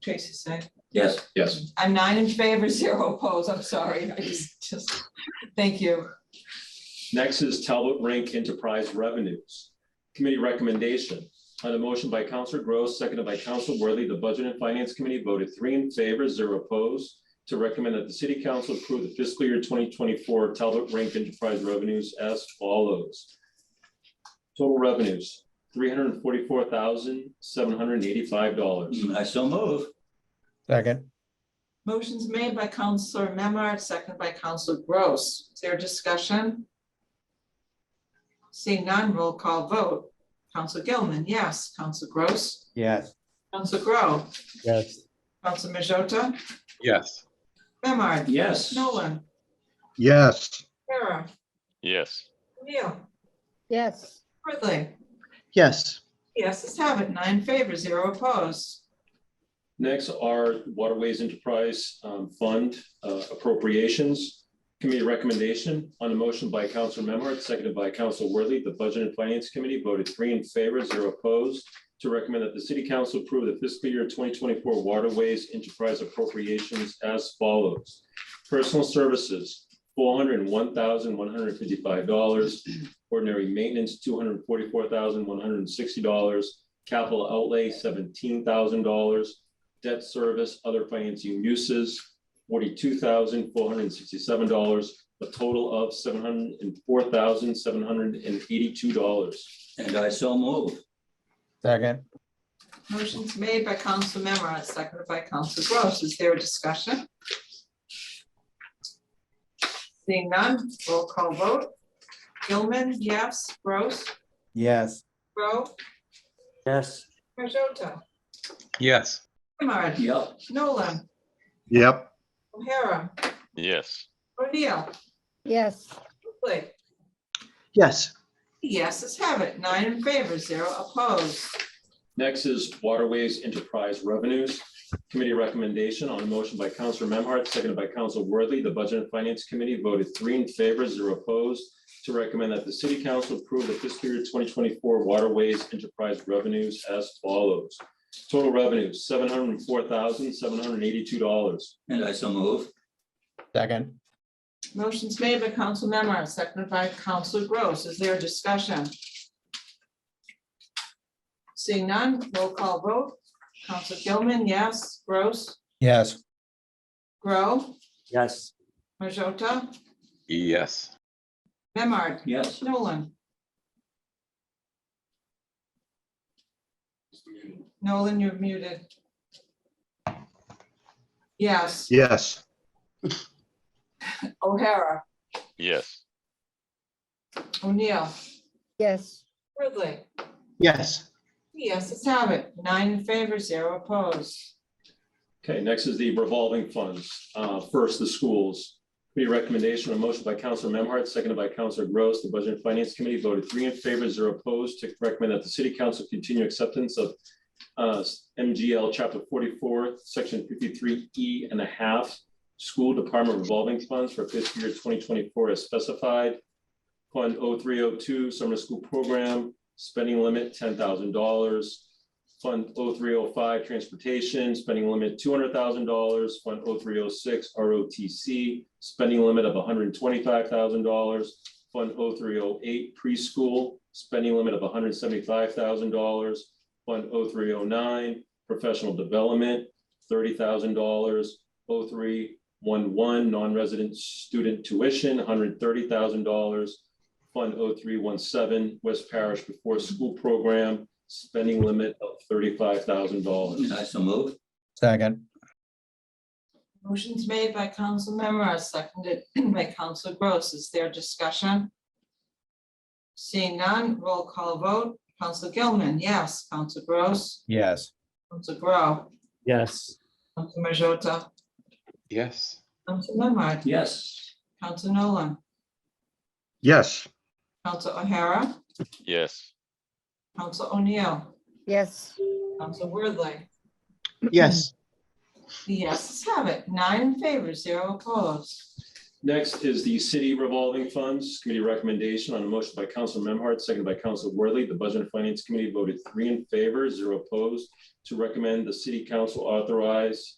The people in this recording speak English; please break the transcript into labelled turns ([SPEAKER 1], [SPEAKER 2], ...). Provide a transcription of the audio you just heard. [SPEAKER 1] Tracy said.
[SPEAKER 2] Yes,
[SPEAKER 3] Yes,
[SPEAKER 1] I'm nine in favor, zero opposed. I'm sorry. I just, just, thank you.
[SPEAKER 4] Next is Talbot Rank Enterprise Revenues. Committee recommendation. On a motion by Counselor Gross, seconded by Counselor Worthy, the Budget and Finance Committee voted three in favor, zero opposed, to recommend that the City Council approve the fiscal year twenty twenty-four Talbot Rank Enterprise revenues as follows. Total revenues, three hundred and forty-four thousand, seven hundred and eighty-five dollars.
[SPEAKER 2] I so move.
[SPEAKER 5] Second,
[SPEAKER 1] Motion's made by Counselor Memard, second by Counselor Gross. Is there discussion? Seeing none, roll call vote. Counselor Gilman, yes. Counselor Gross.
[SPEAKER 5] yes.
[SPEAKER 1] Counselor Grow.
[SPEAKER 5] Yes.
[SPEAKER 1] Counselor Majota.
[SPEAKER 6] Yes.
[SPEAKER 1] Memard.
[SPEAKER 2] Yes.
[SPEAKER 1] Nolan.
[SPEAKER 7] yes,
[SPEAKER 1] Kara.
[SPEAKER 6] Yes.
[SPEAKER 1] Neil.
[SPEAKER 8] yes,
[SPEAKER 1] Worthly.
[SPEAKER 7] yes,
[SPEAKER 1] Yes, let's have it. Nine favor, zero opposed.
[SPEAKER 4] Next are Waterways Enterprise um, Fund uh, appropriations. Committee recommendation on a motion by Council Memard, seconded by Council Worthy. The Budget and Finance Committee voted three in favor, zero opposed, to recommend that the City Council approve the fiscal year twenty twenty-four Waterways Enterprise appropriations as follows. Personal services, four hundred and one thousand, one hundred and fifty-five dollars. Ordinary maintenance, two hundred and forty-four thousand, one hundred and sixty dollars. Capital outlay, seventeen thousand dollars debt service, other financing uses, forty-two thousand four hundred and sixty-seven dollars, a total of seven hundred and four thousand seven hundred and eighty-two dollars.
[SPEAKER 2] And I so move.
[SPEAKER 5] Second,
[SPEAKER 1] Motion's made by Council Memard, seconded by Council Gross. Is there a discussion? Seeing none, roll call vote. Gilman, yes. Gross,
[SPEAKER 5] yes.
[SPEAKER 1] Grow,
[SPEAKER 2] Yes.
[SPEAKER 1] Majota,
[SPEAKER 6] Yes.
[SPEAKER 1] Memard,
[SPEAKER 2] Yep.
[SPEAKER 1] Nolan,
[SPEAKER 7] yep,
[SPEAKER 1] O'Hara,
[SPEAKER 6] Yes.
[SPEAKER 1] O'Neill,
[SPEAKER 8] yes,
[SPEAKER 1] Oakley.
[SPEAKER 7] yes,
[SPEAKER 1] Yes, let's have it. Nine in favor, zero opposed.
[SPEAKER 4] Next is Waterways Enterprise Revenues. Committee recommendation on a motion by Counselor Memhard, seconded by Counselor Worthy. The Budget and Finance Committee voted three in favor, zero opposed, to recommend that the City Council approve the fiscal year twenty twenty-four Waterways Enterprise Revenues as follows. Total revenues, seven hundred and four thousand, seven hundred and eighty-two dollars.
[SPEAKER 2] And I so move.
[SPEAKER 5] Second,
[SPEAKER 1] Motion's made by Council Memard, seconded by Council Gross. Is there a discussion? Seeing none, roll call vote. Council Gilman, yes. Gross,
[SPEAKER 5] yes.
[SPEAKER 1] Grow,
[SPEAKER 5] Yes.
[SPEAKER 1] Majota,
[SPEAKER 6] Yes.
[SPEAKER 1] Memard,
[SPEAKER 2] Yes.
[SPEAKER 1] Nolan. Nolan, you're muted. Yes,
[SPEAKER 7] yes.
[SPEAKER 1] O'Hara,
[SPEAKER 6] Yes.
[SPEAKER 1] O'Neill,
[SPEAKER 8] yes.
[SPEAKER 1] Ridley.
[SPEAKER 7] Yes,
[SPEAKER 1] Yes, let's have it. Nine in favor, zero opposed.
[SPEAKER 4] Okay, next is the revolving funds. Uh, First, the schools. Committee recommendation, a motion by Counselor Memhard, seconded by Counselor Gross. The Budget and Finance Committee voted three in favor, zero opposed, to recommend that the City Council continue acceptance of uh, MGL Chapter 44, Section 53E and a half, School Department Revolving Funds for fiscal year 2024 as specified. Fund 0302 Summer School Program, spending limit $10,000. Fund 0305 Transportation, spending limit $200,000. Fund 0306 ROTC, spending limit of $125,000. Fund 0308 Preschool, spending limit of $175,000. Fund 0309 Professional Development, $30,000. 0311 Non-resident Student Tuition, $130,000. Fund 0317 West Parish Before School Program, spending limit of thirty-five thousand dollars.
[SPEAKER 2] And I so move.
[SPEAKER 5] Second,
[SPEAKER 1] Motion's made by Council Memard, seconded by Council Gross. Is there discussion? Seeing none, roll call vote. Council Gilman, yes. Council Gross,
[SPEAKER 5] yes.
[SPEAKER 1] Council Grow,
[SPEAKER 5] Yes.
[SPEAKER 1] Council Majota,
[SPEAKER 6] Yes.
[SPEAKER 1] Council Memard,
[SPEAKER 2] Yes.
[SPEAKER 1] Council Nolan,
[SPEAKER 7] yes,
[SPEAKER 1] Council O'Hara,
[SPEAKER 6] Yes.
[SPEAKER 1] Council O'Neill,
[SPEAKER 8] Yes.
[SPEAKER 1] Council Worthley.
[SPEAKER 7] yes.
[SPEAKER 1] Yes, let's have it. Nine in favor, zero opposed.
[SPEAKER 4] Next is the city revolving funds committee recommendation on a motion by Council Memhard, seconded by Council Worthy. The Budget and Finance Committee voted three in favor, zero opposed to recommend the city council authorize